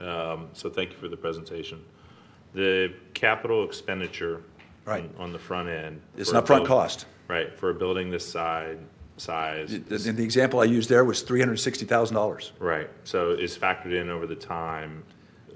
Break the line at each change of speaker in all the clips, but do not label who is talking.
Um, So thank you for the presentation. The capital expenditure
Right.
on- on the front end.
It's
for a
an upfront
buil-
cost.
Right, for a building this side, size. is-
And the example I used there was three hundred and sixty thousand dollars.
Right, so is factored in over the time.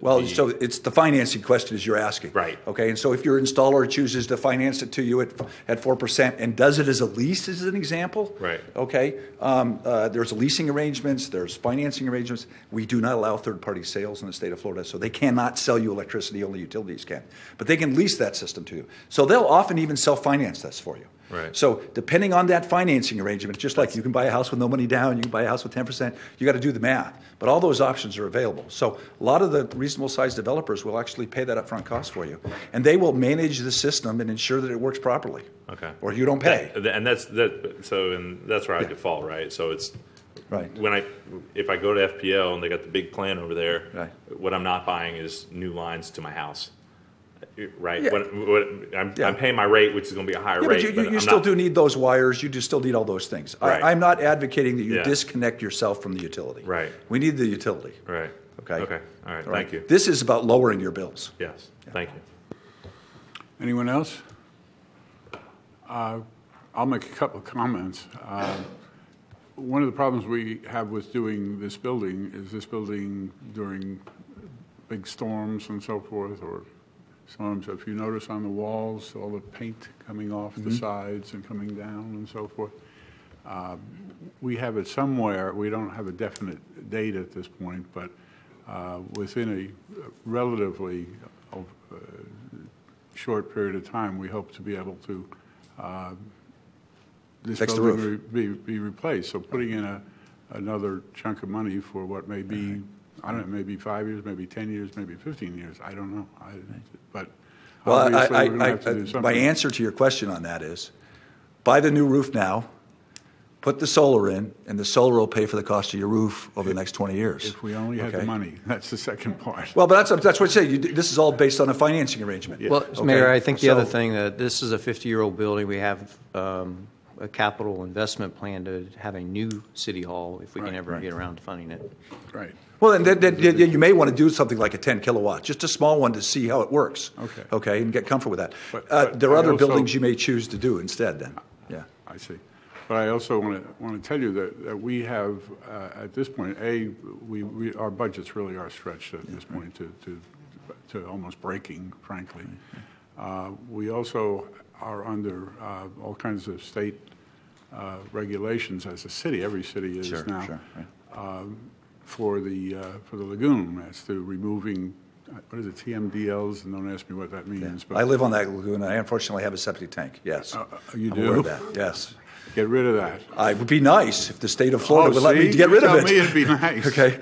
Well,
the-
so it's the financing question is you're asking.
Right.
Okay, and so if your installer chooses to finance it to you at, at four percent and does it as a lease as an example.
Right.
Okay, um, uh, there's leasing arrangements, there's financing arrangements. We do not allow third-party sales in the state of Florida, so they cannot sell you electricity, only utilities can. But they can lease that system to you. So they'll often even self-finance this for you.
Right.
So depending on that financing arrangement, just like you can buy a house with no money down, you can buy a house with ten percent, you got to do the math. But all those options are available. So a lot of the reasonable-sized developers will actually pay that upfront cost for you, and they will manage the system and ensure that it works properly.
Okay.
Or you don't pay.
That- And that's, that, so, and that's where I default, right? So it's,
Right.
when I, if I go to FPL and they got the big plan over there.
Right.
What I'm not buying is new lines to my house, right?
Yeah.
What, what, I'm,
Yeah.
I'm paying my rate, which is gonna be a higher
Yeah, but
rate.
you, you,
but
you
I'm
still
not-
do need those wires. You do still need all those things.
Right.
I, I'm not advocating that you
Yeah.
disconnect yourself from the utility.
Right.
We need the utility.
Right.
Okay.
Okay, all right,
All right?
thank you.
This is about lowering your bills.
Yes, thank you.
Anyone else? Uh, I'll make a couple of comments. Uh, One of the problems we have with doing this building is this building during big storms and so forth, or storms, if you notice on the walls, all the paint coming off the sides and coming down and so forth. Uh, We have it somewhere, we don't have a definite date at this point, but uh, within a relatively uh, short period of time, we hope to be able to, uh, this
Fix the
building
roof.
re- be be replaced. So putting in a another chunk of money for what may be, I don't know, maybe five years, maybe 10 years, maybe 15 years, I don't know. I- But
Well, I,
obviously,
I,
we're going to
I,
have to do
my
something.
answer to your question on that is buy the new roof now, put the solar in, and the solar will pay for the cost of your roof over the next 20 years.
If we only had the
Okay?
money, that's the second part.
Well, but that's, that's what I say. You, d- this is all based on a financing arrangement.
Well,
Okay?
Mayor, I think the other
So-
thing, that this is a 50-year-old building, we have um, a capital investment plan to have a new city hall, if we can
Right,
ever get around to funding it.
Right.
Well, then, then, then you may want to do something like a 10 kilowatt, just a small one to see how it works.
Okay.
Okay, and get comfortable with that.
But-
uh,
but
there are
I
other
also- Uh,
buildings you may choose to do instead then. Yeah.
I see. But I also want to, want to tell you that, that we have, uh, at this point, A, we, we, our budgets really are stretched at this point to, to, to almost breaking, frankly. Uh, We also are under uh, all kinds of state uh, regulations as a city, every city is
Sure,
now.
sure, right.
um, For the, uh, for the lagoon, as to removing, uh, what is it, TMDLs, and don't ask me what that means. but
I live on that lagoon. I unfortunately have a septic tank, yes.
Uh, You
I'm
do?
aware of that, yes.
Get rid of that.
I, it would be nice if the state of Florida
Oh,
would let me
see?
get
You
rid of
tell me
it.
it'd be nice.
Okay?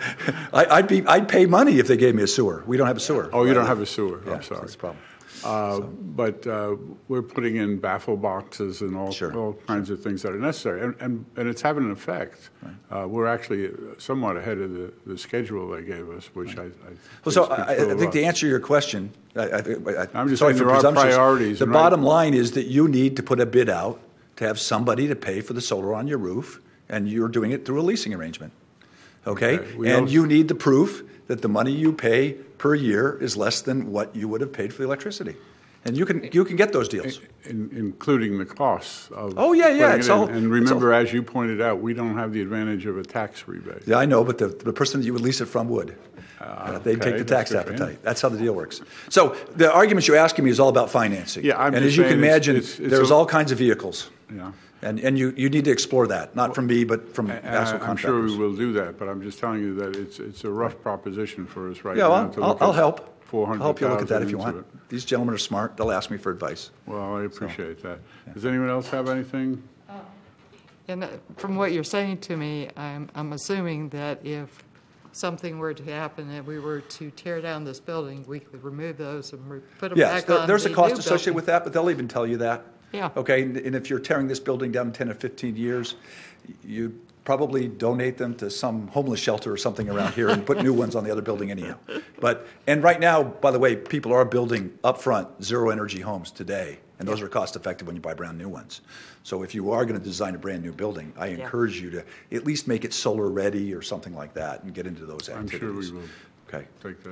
I, I'd be, I'd pay money if they gave me a sewer. We don't have a sewer.
Oh, you don't have a sewer,
Yeah,
I'm
so
sorry.
That's a problem.
Uh, But uh, we're putting in baffle boxes and all,
Sure.
all kinds of things that are necessary, and, and, and it's having an effect. Uh, We're actually somewhat ahead of the, the schedule they gave us, which I, I.
Well, so
speaks
I, I
for a
think to
lot.
answer your question, I, I, think- I,
I'm just
sorry
saying
for
there are
presumptuous,
priorities,
The
right?
bottom line is that you need to put a bid out to have somebody to pay for the solar on your roof, and you're doing it through a leasing arrangement. Okay,
Okay, we
and
also-
you need the proof that the money you pay per year is less than what you would have paid for the electricity, and you can you can get those deals.
In- Including the costs of.
Oh, yeah, yeah,
putting it
it's
in.
all- it's all-
And remember, as you pointed out, we don't have the advantage of a tax rebate.
Yeah, I know, but the, the person that you would lease it from would. Uh, they'd take
Ah, okay,
the
that's
tax
good for him.
appetite. That's how the deal works. So the argument you're asking me is all about financing.
Yeah, I'm
And
just
as you can
saying it's-
imagine,
it's- it's
there's
a-
all kinds of vehicles.
Yeah.
And, and you, you need to explore that, not from me, but from
And I-
actual
I'm sure we
contractors.
will do that, but I'm just telling you that it's, it's a rough proposition for us right
Yeah,
now.
well,
to
I'll,
look
I'll
at
help. I'll
400,000
help you look at that if you
into
want.
it.
These gentlemen are smart. They'll ask me for advice.
Well, I appreciate that. Does anyone else have anything?
And uh, from what you're saying to me, I'm, I'm assuming that if something were to happen and we were to tear down this building, we could remove those and re- put them
Yes,
back
there-
on the
there's a
new
cost associated
building.
with that, but they'll even tell you that.
Yeah.
Okay, and and if you're tearing this building down in 10 or 15 years, you probably donate them to some homeless shelter or something around here and put new ones on the other building anyhow. But, and right now, by the way, people are building upfront zero-energy homes today, and those are cost-effective when you buy brand-new ones. So if you are going to design a brand-new building, I encourage you to at least make it solar-ready or something like that and get into those
I'm sure we
activities.
will
Okay.
take that.